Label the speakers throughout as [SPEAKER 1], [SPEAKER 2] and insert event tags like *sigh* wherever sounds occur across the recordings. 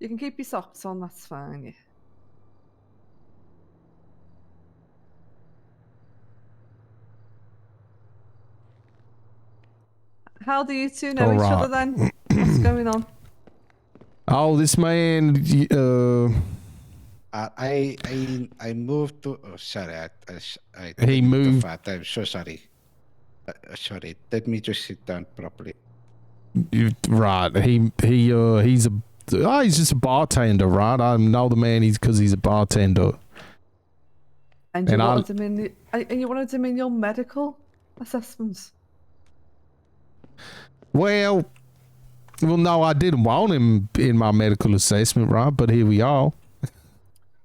[SPEAKER 1] You can keep your socks on, that's fine. Yeah. How do you two know each other then? What's going
[SPEAKER 2] *clears throat*
[SPEAKER 1] on?
[SPEAKER 2] Oh, this man. y- Uh,
[SPEAKER 3] Uh, I I I moved to. Oh, sorry, I, I, s- I
[SPEAKER 2] He
[SPEAKER 3] moved too
[SPEAKER 2] moved-
[SPEAKER 3] far. I'm so sorry. Uh, uh, sorry. Let me just sit down properly.
[SPEAKER 2] you- right. He he uh he's a oh, he's just a bartender, right? I know the man. He's because he's a bartender.
[SPEAKER 1] And you
[SPEAKER 2] And I'll-
[SPEAKER 1] wanted him in the, and and you wanted him in your medical assessments.
[SPEAKER 2] Well, well, no, I didn't want him in my medical assessment, right? But here we are.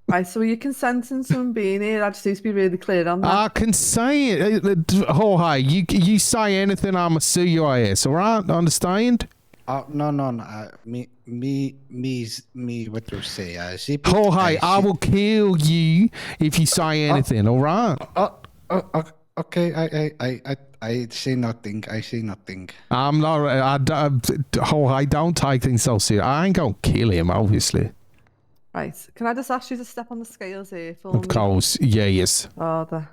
[SPEAKER 1] Right, so you consenting to him being here? I just need to be really clear on that.
[SPEAKER 2] I can say it, Uh, uh, Jorge. You you say anything, I'ma sue your ass. All right, understand?
[SPEAKER 3] Oh no no no. Uh, me me me is- me. What you say? Uh, zip it,
[SPEAKER 2] Jorge, Oh, I
[SPEAKER 3] zip-
[SPEAKER 2] will kill you if you say anything. All right?
[SPEAKER 3] Oh, oh, oh, okay. I I I I I say nothing. I say nothing.
[SPEAKER 2] I'm not. I, don't- Jorge, don't take things so serious. I ain't gonna kill him, obviously.
[SPEAKER 1] Right, can I just ask you to step on the scales here for me?
[SPEAKER 2] Of course, yeah, yes.
[SPEAKER 1] Oh, the...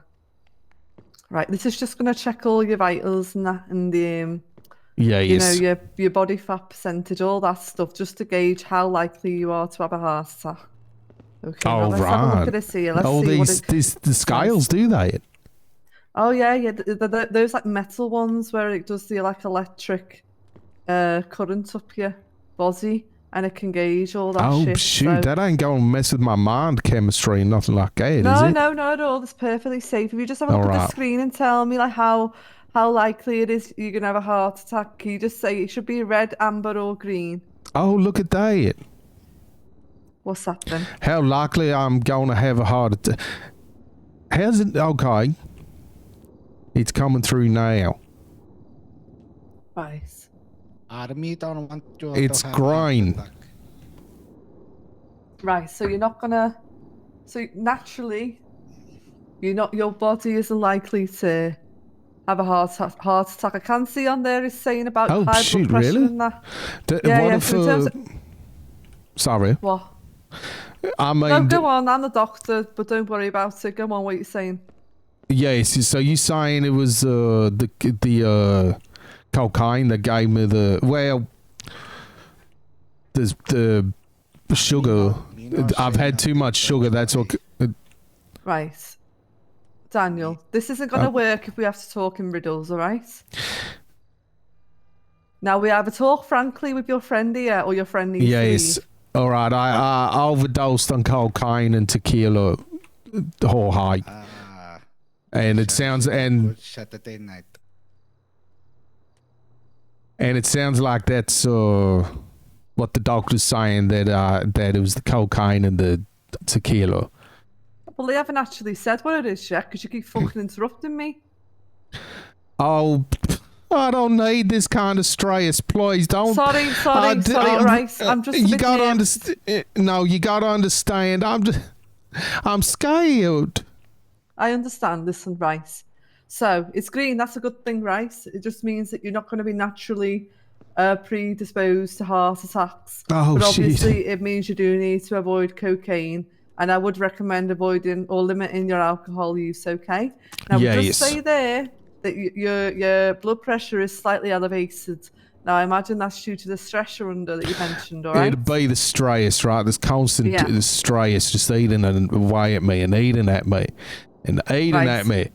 [SPEAKER 1] Right, this is just going to check all your vitals and that, and the, um,
[SPEAKER 2] Yeah,
[SPEAKER 1] you
[SPEAKER 2] yes.
[SPEAKER 1] know, your your body fat percentage, all that stuff, just to gauge how likely you are to have a heart attack. Okay, now
[SPEAKER 2] All
[SPEAKER 1] let's have a
[SPEAKER 2] right.
[SPEAKER 1] look at this here. Let's
[SPEAKER 2] oh,
[SPEAKER 1] see what
[SPEAKER 2] these
[SPEAKER 1] it...
[SPEAKER 2] these the scales do that.
[SPEAKER 1] Oh yeah, yeah. th th th those like metal ones where it does the like electric uh, current up your body, and it can gauge all that
[SPEAKER 2] Oh
[SPEAKER 1] shit.
[SPEAKER 2] shoot,
[SPEAKER 1] so-
[SPEAKER 2] that ain't gonna mess with my mind chemistry and nothing like that, is
[SPEAKER 1] no,
[SPEAKER 2] it?
[SPEAKER 1] no, no, at all. It's perfectly safe. If you just have a
[SPEAKER 2] All
[SPEAKER 1] look at
[SPEAKER 2] right.
[SPEAKER 1] the screen and tell me like how how likely it is you're gonna have a heart attack, can you just say it should be red, amber, or green?
[SPEAKER 2] Oh, look at that.
[SPEAKER 1] What's that then?
[SPEAKER 2] How likely I'm gonna have a heart attack? How's it? Okay, it's coming through now.
[SPEAKER 1] Right.
[SPEAKER 3] Army don't want you.
[SPEAKER 2] It's
[SPEAKER 3] to have heart
[SPEAKER 2] green.
[SPEAKER 3] attack.
[SPEAKER 1] Right, so you're not gonna. So naturally, you're not. Your body isn't likely to have a heart ta- heart attack. I can see on there is saying about
[SPEAKER 2] Oh,
[SPEAKER 1] high
[SPEAKER 2] shoot,
[SPEAKER 1] blood pressure
[SPEAKER 2] really?
[SPEAKER 1] and that.
[SPEAKER 2] D-
[SPEAKER 1] Yeah,
[SPEAKER 2] what
[SPEAKER 1] yeah.
[SPEAKER 2] if?
[SPEAKER 1] so in terms
[SPEAKER 2] uh,
[SPEAKER 1] of,
[SPEAKER 2] sorry,
[SPEAKER 1] what?
[SPEAKER 2] I
[SPEAKER 1] No,
[SPEAKER 2] mean,
[SPEAKER 1] go on. I'm the doctor, but don't worry about it. Go on, what you're saying.
[SPEAKER 2] yes. So you saying it was uh, the the uh, cocaine that gave me the well, the the sugar.
[SPEAKER 3] You know,
[SPEAKER 2] I've
[SPEAKER 3] say
[SPEAKER 2] had too much sugar. That's what. uh,
[SPEAKER 1] Right, Daniel. This isn't gonna
[SPEAKER 2] Oh.
[SPEAKER 1] work if we have to talk in riddles. All right. Now we either talk frankly with your friend here, or your friend E needs to
[SPEAKER 2] Yes.
[SPEAKER 1] leave.
[SPEAKER 2] All right. I, I overdosed on cocaine and tequila, uh, Jorge,
[SPEAKER 3] Ah,
[SPEAKER 2] and it sounds and
[SPEAKER 3] good Saturday night.
[SPEAKER 2] and it sounds like that's uh, what the doctor's saying that uh, that it was the cocaine and the tequila.
[SPEAKER 1] Well, they haven't actually said what it is yet because you keep
[SPEAKER 2] *clears throat*
[SPEAKER 1] fucking interrupting me.
[SPEAKER 2] Oh, I don't need this kind of stress, please. Don't.
[SPEAKER 1] Sorry, sorry,
[SPEAKER 2] I di-
[SPEAKER 1] sorry,
[SPEAKER 2] I'm-
[SPEAKER 1] right. I'm just a
[SPEAKER 2] You
[SPEAKER 1] bit
[SPEAKER 2] gotta
[SPEAKER 1] nervous.
[SPEAKER 2] understand. No, you gotta understand. I'm. Just, I'm scared.
[SPEAKER 1] I understand. Listen, rice. So it's green. That's a good thing, rice. It just means that you're not going to be naturally uh, predisposed to heart attacks.
[SPEAKER 2] Oh,
[SPEAKER 1] but
[SPEAKER 2] shit.
[SPEAKER 1] obviously, it means you do need to avoid cocaine. And I would recommend avoiding or limiting your alcohol use. Okay. Now we
[SPEAKER 2] Yes.
[SPEAKER 1] just say there that y- your your blood pressure is slightly elevated. Now I imagine that's due to the stress you're under that you mentioned. All right.
[SPEAKER 2] It'd be the stress, right? This constant
[SPEAKER 1] Yeah.
[SPEAKER 2] the stress just eating and away at me and eating at me and eating
[SPEAKER 1] Right.
[SPEAKER 2] at me.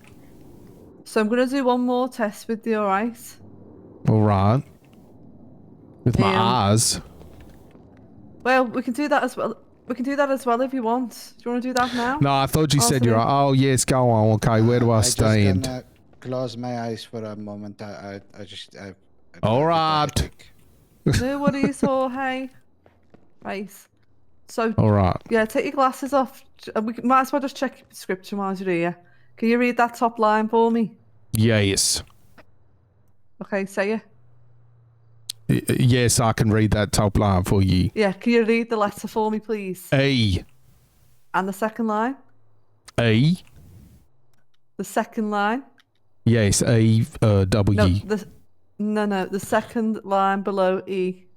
[SPEAKER 1] So I'm going to do one more test with you. All right.
[SPEAKER 2] All right. With my
[SPEAKER 1] Yeah.
[SPEAKER 2] eyes.
[SPEAKER 1] Well, we can do that as well. We can do that as well if you want. Do you want to do that now?
[SPEAKER 2] No, I thought you
[SPEAKER 1] Oh,
[SPEAKER 2] said you're.
[SPEAKER 1] sorry.
[SPEAKER 2] Oh, yes, go on. Okay, where do I,
[SPEAKER 3] just
[SPEAKER 2] stand?
[SPEAKER 3] gonna close my eyes for a moment. I, I, I just. I, I
[SPEAKER 2] All
[SPEAKER 3] don't
[SPEAKER 2] right.
[SPEAKER 3] think I think.
[SPEAKER 1] No worries, Jorge. Right. So
[SPEAKER 2] All right.
[SPEAKER 1] yeah, take your glasses off. J- uh, We c- might as well just check your prescription while you're here. Can you read that top line for me?
[SPEAKER 2] Yes.
[SPEAKER 1] Okay, say it.
[SPEAKER 2] Y- Yes, I can read that top line for you.
[SPEAKER 1] Yeah, can you read the letter for me, please?
[SPEAKER 2] E.
[SPEAKER 1] And the second line.
[SPEAKER 2] E.
[SPEAKER 1] The second line.
[SPEAKER 2] Yes, E. Uh, w.
[SPEAKER 1] No, the no, no, the second line below E.